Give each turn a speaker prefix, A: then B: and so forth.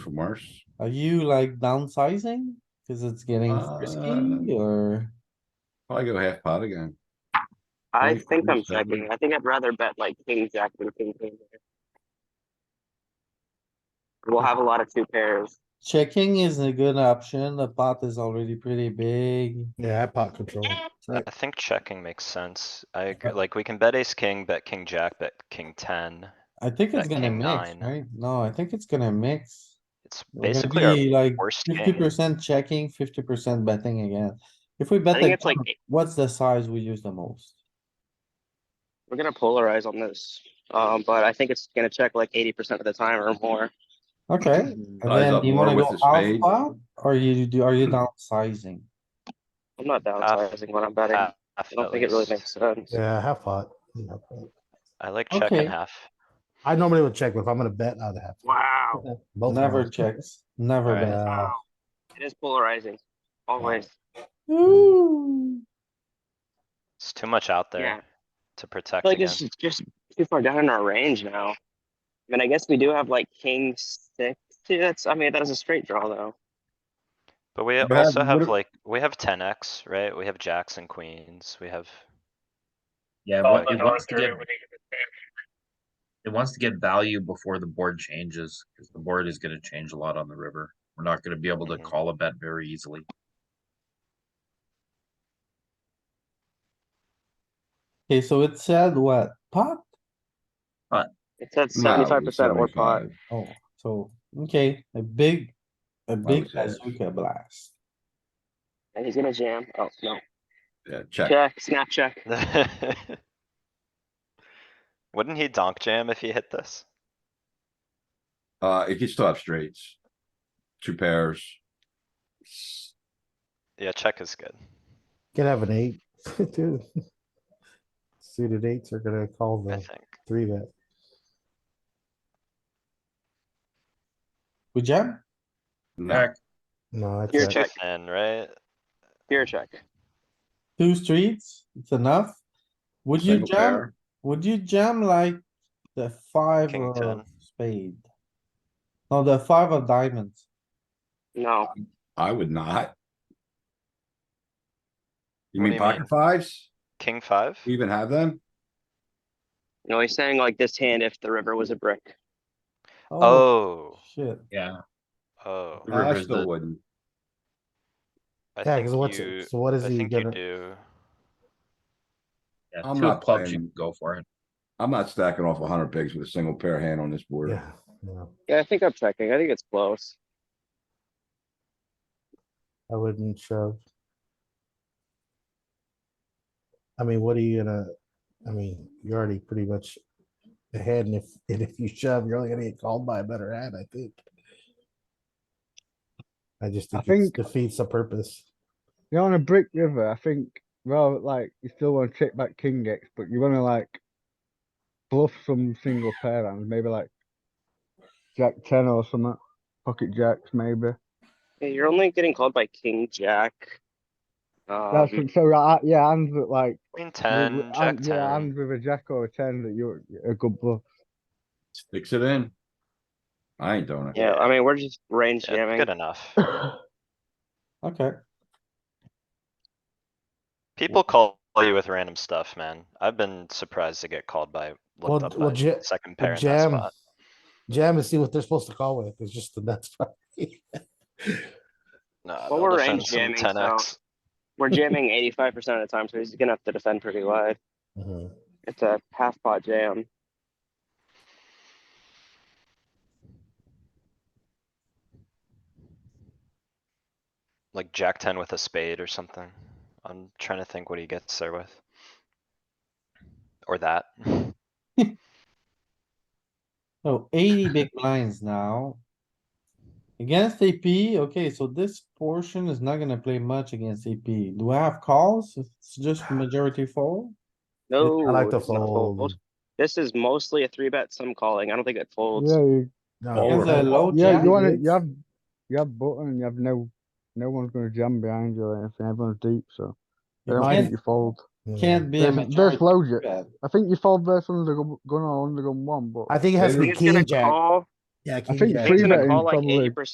A: worse.
B: Are you like downsizing? Cause it's getting frisky
A: Uh,
B: or
A: Probably go half pot again.
C: I
A: Three,
C: think
A: four,
C: I'm
A: seven.
C: checking. I think I'd rather bet like king jack than king queen. there. We'll have a lot of two pairs.
B: checking is a good option. The pot is already pretty big.
D: Yeah, pot control.
E: I think checking makes sense. I agree, like, we can bet ace king, bet king jack, bet king ten.
B: I think it's
E: That
B: gonna
E: king
B: mix,
E: nine.
B: right? No, I think it's gonna mix.
E: It's
B: We're gonna
E: basically our
B: be like
E: worst
B: Fifty
E: king.
B: percent checking, fifty percent betting again. If we
C: I
B: bet,
C: think
B: the
C: it's like,
B: gun, what's the size we use the most?
C: we're gonna polarize on this. Um, but I think it's gonna check like eighty percent of the time or more.
B: Okay, and
A: Size
B: then
A: up
B: do you
A: more
B: wanna
A: with
B: go
A: the
B: half
A: spade.
B: pot, or you do, are you downsizing?
C: I'm not downsizing when I'm betting. I
E: Half, at
C: don't think it really
E: least.
C: makes sense.
D: Yeah, half pot. Yeah, half pot.
E: I like
B: Okay.
E: checking half.
D: I normally would check, but if I'm gonna bet, I'd have.
C: Wow,
D: both uh,
B: Never
D: hands.
B: checks, never
E: Alright.
B: bet.
D: Yeah,
C: it is polarizing. Always.
B: Ooh,
E: It's too much out
C: Yeah.
E: there
C: I
E: to protect
C: feel like it's
E: against.
C: just- just too far down in our range now. I mean, I guess we do have like king six. Yeah, That's, I mean, that is a straight draw though.
E: But we
A: Brad,
E: also
A: what
E: have
A: if-
E: like, we have ten X, right? We have jacks and queens, we have,
F: Yeah,
E: Oh,
F: but
E: but
F: it wants to get. It wants to get value before the board changes, because the board is gonna change a lot on the river. We're not gonna be able to
A: Mm-hmm.
E: Mhm.
F: call a bet very easily.
B: okay, so it said what, pot?
C: It's at
A: No,
C: seventy-five percent or pot.
A: 75.
B: Oh, so, okay, a big, a big
A: was that?
B: bazooka blast.
C: And he's gonna jam. Oh, no.
A: Yeah, check.
C: Check, snap check.
E: wouldn't he donk jam if he hit this?
A: Uh, it gets still have straights. Two pairs.
E: Yeah, check is good.
D: Can have an eight, too. Suited eights are gonna call
E: I
D: the
E: think.
D: three bet.
B: We jam?
A: No,
F: Heck,
D: No, it's
C: You're
D: a-
C: check.
E: And right,
C: Here, check.
B: Two streets, it's enough. Would you
A: single
B: jam?
A: pair.
B: Would you jam like the five
E: King
B: of
E: ten.
B: spade? No, the five of diamonds.
C: No,
A: I would not. You mean
E: What do you mean?
A: pocket fives?
E: king five?
A: We Even have them?
C: no, he's saying like this hand if the river was a brick.
E: Oh,
B: Shit,
F: yeah,
E: oh.
F: The
A: I
F: river's
A: still
F: the-
A: wouldn't.
E: I
D: Yeah,
E: think
D: cause what's,
E: you-
D: it- so what is
E: I
D: he
E: think you
D: gonna,
E: do.
F: yeah,
A: I'm
F: two
A: not
F: of clubs, you
A: playing.
F: can go for it.
A: I'm not stacking off hundred bigs with a single pair hand on this board.
D: yeah, no,
C: Yeah, I think I'm checking. I think it's close.
D: I wouldn't shove. I mean, what are you gonna, I mean, you're already pretty much ahead, and if, and if you shove, you're only gonna get called by a better hand, I think. I just
G: I
D: think it
G: think-
D: defeats the purpose.
G: You're on a brick river. I think, well, like, you still want to check back King X, but you want to, like, bluff some single pair hands, maybe like Jack 10 or something, pocket jacks, maybe.
C: Yeah, You're only getting called by king jack.
G: That's
C: Um,
G: it. So, right, yeah, hands that, like,
E: Queen
G: with-
E: ten, jack
G: hand- yeah,
E: ten.
G: hands with a jack or a 10 that you're a good bluff.
A: Sticks it in. I ain't doing it.
C: yeah, I mean, we're just range
E: Yeah,
C: jamming.
E: good enough.
B: okay.
E: People call you with random stuff, man. I've been surprised to get called by,
D: Well,
E: looked up
D: well,
E: by
D: ja-
E: second
D: But
E: pair in that
D: Jam,
E: spot.
D: jam and see what they're supposed to call with, it's just the nuts. part.
E: Nah,
C: Well,
E: they'll
C: we're
E: defend
C: range
E: some
C: jamming,
E: 10x.
C: We're jamming eighty-five percent of the time, so he's gonna have to defend pretty wide. Mm-hmm.
D: Mhm.
C: It's a half pot jam.
E: Like jack ten with a spade or something. I'm trying to think what he gets there with. Or that.
B: So eighty big blinds now. Against AP, okay, so this portion is not gonna play much against AP. Do I have calls? It's just majority fold?
C: No,
D: I like to
C: Oh, it's not
D: fold.
C: This is mostly a three bet, some calling. I don't think it folds.
G: Yeah, you,
D: No,
A: Fold.
B: Against a low
G: yeah,
B: jack?
G: you want to,
D: it's-
G: you have, you have button and you have no, no one's going to jam behind you or anything. Everyone's deep, so I
B: You
G: don't think
B: can't-
G: you fold.
D: yeah.
B: Can't be a
G: There's, there's
B: majority
G: logic.
B: bet.
G: I think you fold versus under gun or under gun one, but
D: I think it has to
C: I
D: be
C: think it's gonna
D: king jack,
C: call.
D: Yeah,
G: think
D: king jack.
G: three
C: He's gonna
G: betting
C: call like
G: probably-
C: eighty percent